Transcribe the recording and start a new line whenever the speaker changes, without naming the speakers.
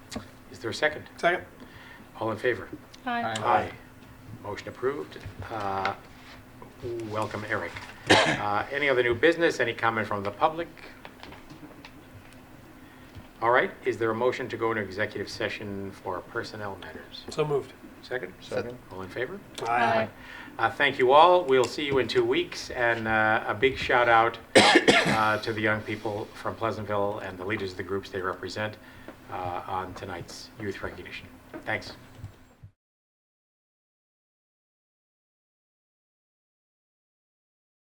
Is there a second?
Second?
All in favor?
Aye.
Aye.
Motion approved. Uh, Welcome, Eric. Uh, Any other new business, any comment from the public? All right, is there a motion to go into executive session for personnel matters?
So moved.
Second?
Second.
All in favor?
Aye.
Uh, Thank you all. We'll see you in two weeks. And uh, a big shout out uh, to the young people from Pleasantville and the leaders of the groups they represent uh, on tonight's youth recognition. Thanks.